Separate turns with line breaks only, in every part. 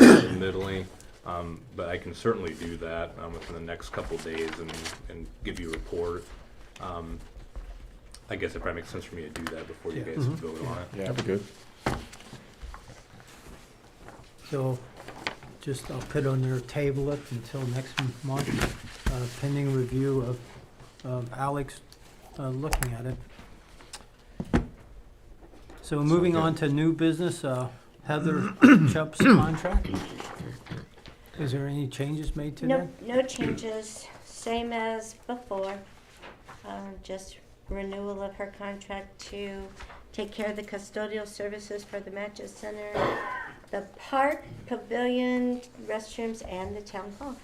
Italy. Um, but I can certainly do that um, within the next couple days and, and give you a report. Um, I guess it probably makes sense for me to do that before you
Yeah.
guys vote on it.
Yeah, that'd be good.
So just, I'll put on their table it until next m- month, uh, pending review of, of Alex uh, looking at it. So moving on to new business, uh, Heather Chubb's contract. Is there any changes made to that?
No, no changes, same as before. Um, Just renewal of her contract to take care of the custodial services for the Matches Center, the park, pavilion, restrooms, and the town hall.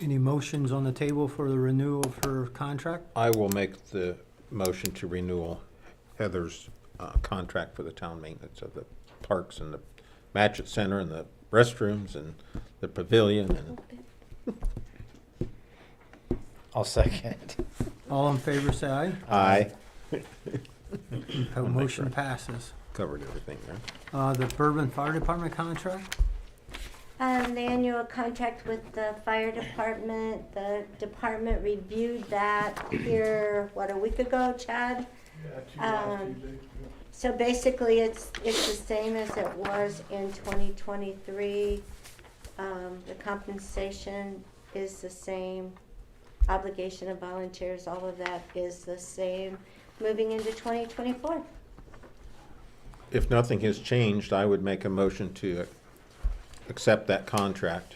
Any motions on the table for the renewal of her contract?
I will make the motion to renewal Heather's uh, contract for the town maintenance of the parks and the Matchett Center and the restrooms and the pavilion and
I'll second.
All in favor, say aye.
I
Uh, Motion passes.
covered everything there.
Uh, The Bourbon Fire Department contract,
Um, the annual contract with the fire department, the department reviewed that here, what, a week ago, Chad? Um, So basically, it's, it's the same as it was in twenty twenty-three. Um, the compensation is the same, obligation of volunteers, all of that is the same, moving into twenty twenty-four.
If nothing has changed, I would make a motion to accept that contract.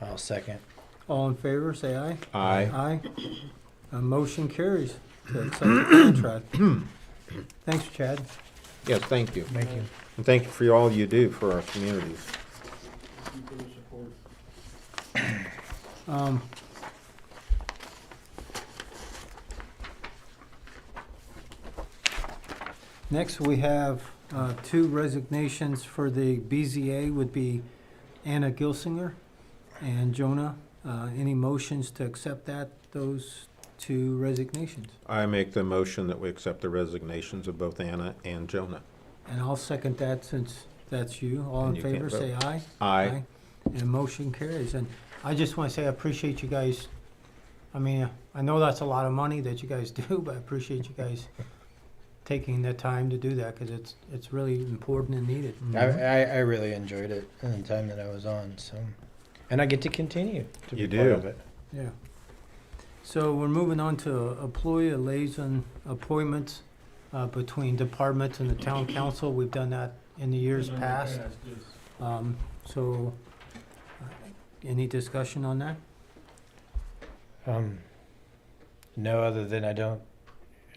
I'll second.
all in favor, say aye.
Aye.
Aye. A motion carries to accept the contract. Thanks, Chad.
Yes, thank you.
Thank you.
And thank you for all you do for our communities.
Um, Next, we have uh, two resignations for the BZA would be Anna Gilsinger and Jonah. Uh, Any motions to accept that, those two resignations?
I make the motion that we accept the resignations of both Anna and Jonah.
And I'll second that since that's you. All in
And you can't
favor, say aye.
Aye.
And motion carries. And I just want to say I appreciate you guys. I mean, I know that's a lot of money that you guys do, but I appreciate you guys taking the time to do that because it's, it's really important and needed. Mm-hmm.
I, I, I really enjoyed it in the time that I was on, so. And I get to continue to
You
be part
do.
of it.
Yeah. So we're moving on to employee liaison appointments uh, between departments and the town council. We've done that in the years past. Um, So, uh, any discussion on that?
Um, no, other than I don't,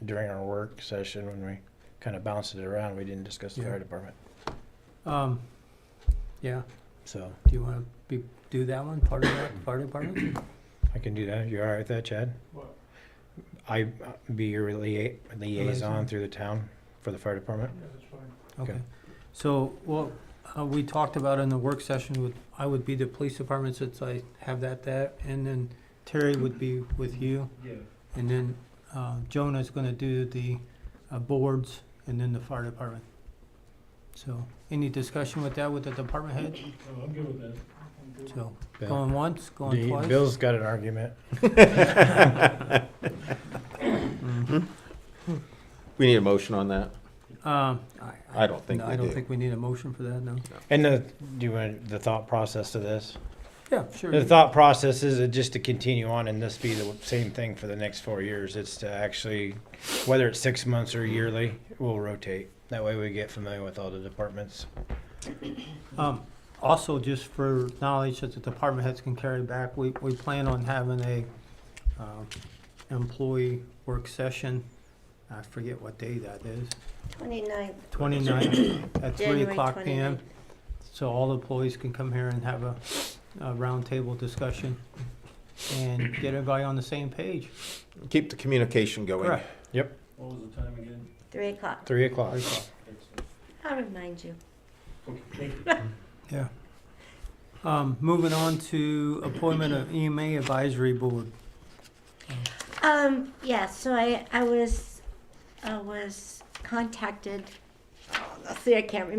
during our work session when we kind of bounced it around, we didn't discuss the
Yeah.
fire department.
Um, Yeah,
So
do you want to do that one, part of that, fire department?
I can do that. You all right with that, Chad? I uh, be your lia- liaison
Liaison.
through the town for the fire department?
Okay. So, well, uh, we talked about in the work session, would I would be the police department since I have that, that, and then Terry would be with you. And then uh, Jonah's going to do the uh, boards and then the fire department. So, any discussion with that with the department head?
I'm good with that.
So,
Bill.
going once,
Do
going
you-
twice?
Bill's got an argument.
Mm.
We need a motion on that?
Um,
I don't think
no,
we
I don't
do.
think we need a motion for that, no.
And the, do you want the thought process to this?
Yeah, sure.
The thought process is it just to continue on and this be the same thing for the next four years. It's to actually, whether it's six months or yearly, we'll rotate. That way we get familiar with all the departments.
Um, also, just for knowledge that the department heads can carry back, we, we plan on having a, um, employee work session. I forget what day that is,
Twenty-ninth,
twenty-nine at three
January
o'clock PM.
twenty-ninth.
So all employees can come here and have a, a roundtable discussion and get everybody on the same page.
Keep the communication going.
Correct.
What was the time again?
Three o'clock.
Three o'clock.
I'll remind you.
Yeah. Um, moving on to appointment of EMA advisory board.
Um, yeah, so I, I was, I was contacted, oh, let's see, I can't remember